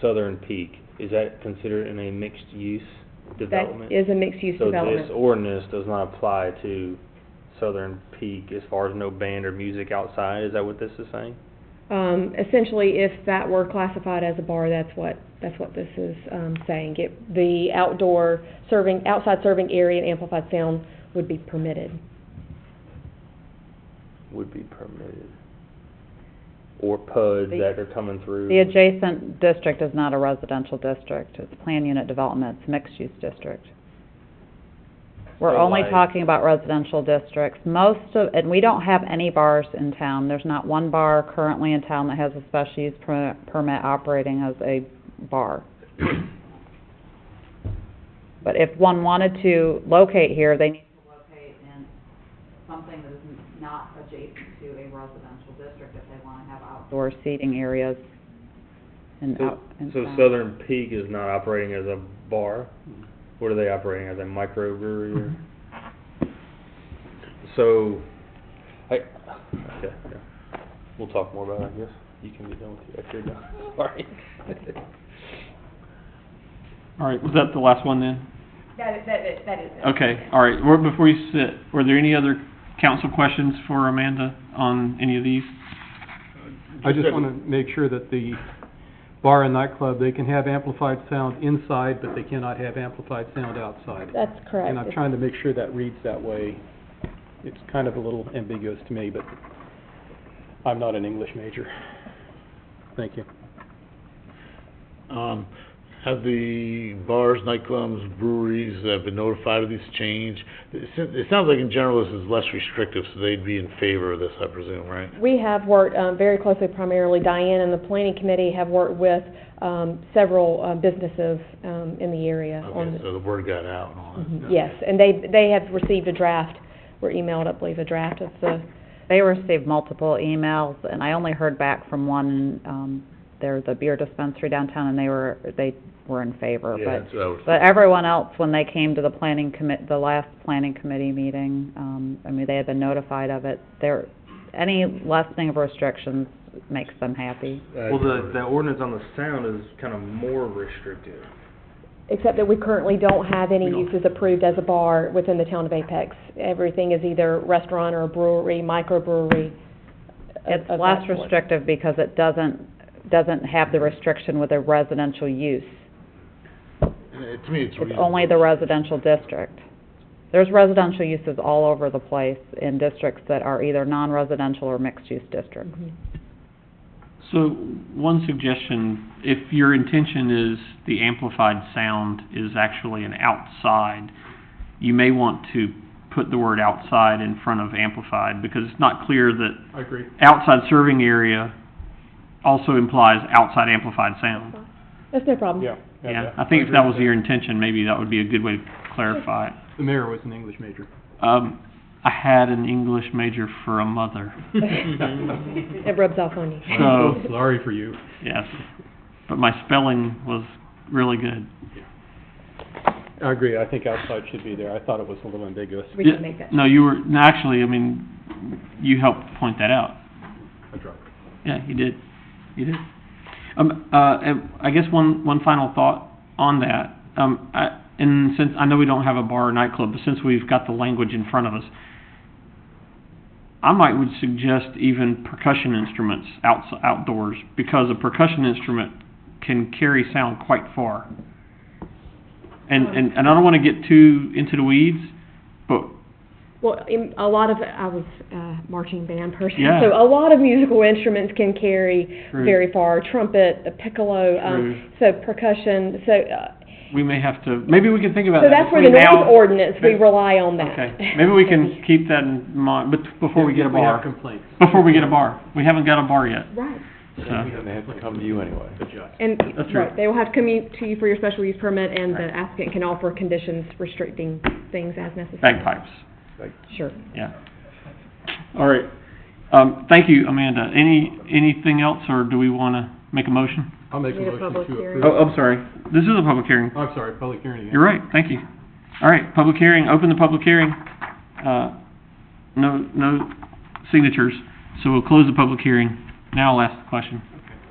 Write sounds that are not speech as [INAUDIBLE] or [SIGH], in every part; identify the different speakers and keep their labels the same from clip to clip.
Speaker 1: southern peak, is that considered in a mixed-use
Speaker 2: That
Speaker 1: development?
Speaker 2: is a mixed-use
Speaker 1: So this
Speaker 2: development.
Speaker 1: ordinance does not apply to southern peak as far as no band or music outside, is that what this is saying?
Speaker 2: Um, essentially, if that were classified as a bar, that's what, that's what this is, um, saying. It, the outdoor serving, outside serving area and amplified sound would be permitted.
Speaker 1: Would be permitted. Or PUDs
Speaker 3: The-
Speaker 1: that are coming through.
Speaker 3: The adjacent district is not a residential district, it's plan unit development, it's mixed-use district. We're
Speaker 1: So
Speaker 3: only
Speaker 1: like-
Speaker 3: talking about residential districts, most of, and we don't have any bars in town, there's not one bar currently in town that has a special use per- permit operating as a bar. But if one wanted to locate here, they need to locate in something that is not adjacent to a residential district if they wanna have outdoor seating areas and
Speaker 1: So,
Speaker 3: out, and
Speaker 1: so
Speaker 3: sound.
Speaker 1: Southern Peak is not operating as a bar? What are they operating, as a microbrewery or? Mm-hmm. So, I, okay, yeah. We'll talk more about it, I guess. You can be done with your, if you're done. [LAUGHS] Sorry.
Speaker 4: All right, was that the last one then?
Speaker 5: That, that, that- that is it.
Speaker 4: Okay, all right, Well, before you sit, were there any other council questions for Amanda on any of these?
Speaker 6: I just wanna make sure that the bar and nightclub, they can have amplified sound inside, but they cannot have amplified sound outside.
Speaker 2: That's correct.
Speaker 6: And I'm trying to make sure that reads that way. It's kind of a little ambiguous to me, but I'm not an English major. Thank you.
Speaker 7: Um, have the bars, nightclubs, breweries that have been notified of this change? It s- it sounds like in general this is less restrictive, so they'd be in favor of this, I presume, right?
Speaker 2: We have worked um, very closely, primarily Diane and the planning committee have worked with um, several uh, businesses um, in the area
Speaker 7: Okay,
Speaker 2: on,
Speaker 7: so the word got out and all
Speaker 3: Mm-hmm.
Speaker 7: that.
Speaker 2: Mhm, yes, and they, they have received a draft, were emailed, I believe, a draft of the,
Speaker 3: They received multiple emails, and I only heard back from one, um, there's a beer dispensary downtown, and they were, they were in favor,
Speaker 7: Yeah,
Speaker 3: but,
Speaker 7: that's what I was
Speaker 3: but everyone else, when they came to the planning commit, the last planning committee meeting, um, I mean, they had been notified of it, there, any lessening of restrictions makes them happy.
Speaker 7: I
Speaker 1: Well, the,
Speaker 7: heard.
Speaker 1: the ordinance on the sound is kind of more restrictive.
Speaker 2: except that we currently don't have any
Speaker 4: We don't.
Speaker 2: uses approved as a bar within the town of Apex. Everything is either restaurant or brewery, microbrewery. of-
Speaker 3: It's
Speaker 2: of
Speaker 3: less
Speaker 2: that sort.
Speaker 3: restrictive because it doesn't, doesn't have the restriction with a residential use.
Speaker 7: Uh, To me, it's
Speaker 3: It's
Speaker 7: reasonable.
Speaker 3: only the residential district. There's residential uses all over the place in districts that are either non-residential or mixed-use districts.
Speaker 2: Mhm.
Speaker 4: So, one suggestion, if your intention is the amplified sound is actually an outside, you may want to put the word outside in front of amplified, because it's not clear that
Speaker 6: I agree.
Speaker 4: outside serving area also implies outside amplified sound.
Speaker 2: That's no problem.
Speaker 6: Yeah.
Speaker 4: Yeah, I think if that was your intention, maybe that would be a good way to clarify it.
Speaker 6: The mayor was an English
Speaker 4: [LAUGHS]
Speaker 6: major.
Speaker 4: Um, I had an English major for a mother,
Speaker 2: It rubs off on you.
Speaker 4: so,
Speaker 6: Sorry for you.
Speaker 4: yes. But my spelling was really good.
Speaker 6: I agree, I think outside should be there. I thought it was a little ambiguous.
Speaker 2: We can make that.
Speaker 4: No, you were, no, actually, I mean, you helped point that out.
Speaker 6: I dropped it.
Speaker 4: Yeah, you did. You did. Um, uh, and I guess one, one final thought on that. Um, I, and since, I know we don't have a bar or nightclub, but since we've got the language in front of us, I might would suggest even percussion instruments outs- outdoors, because a percussion instrument can carry sound quite far. And, and, and I don't wanna get too into the weeds, but
Speaker 2: Well, in, a lot of, I was a marching band person,
Speaker 4: Yeah.
Speaker 2: so a lot of musical instruments can carry
Speaker 4: True.
Speaker 2: very far. Trumpet, a piccolo, um, so percussion. So, uh,
Speaker 4: we may have to, maybe we can think about
Speaker 2: so
Speaker 4: that
Speaker 2: that's where the
Speaker 4: Uh, between now-
Speaker 2: noise ordinance, we
Speaker 4: but-
Speaker 2: rely on that.
Speaker 4: Okay, maybe we can keep that in mind, but before we get a
Speaker 6: We have
Speaker 4: bar,
Speaker 6: complaints.
Speaker 4: before we get a bar, we haven't got a bar yet,
Speaker 2: [LAUGHS] Right.
Speaker 4: so.
Speaker 6: And they have to come to you anyway. Adjust.
Speaker 2: And,
Speaker 4: That's true.
Speaker 2: right, they will have to come in to you for your special use permit, and the applicant can offer conditions restricting things as necessary.
Speaker 4: Bagpipes,
Speaker 2: Sure.
Speaker 4: yeah. All right, um, thank you, Amanda. Any, anything else, or do we wanna make a motion?
Speaker 6: I'll make a
Speaker 2: Need a
Speaker 6: motion to
Speaker 2: public hearing.
Speaker 6: approve.
Speaker 4: Oh, I'm sorry, this is a public hearing.
Speaker 6: I'm sorry, public hearing again.
Speaker 4: You're right, thank you. All right, public hearing, open the public hearing. Uh, no, no signatures, so we'll close the public hearing. Now I'll ask the question.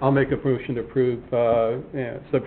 Speaker 6: I'll make a motion to approve, uh, yeah, subject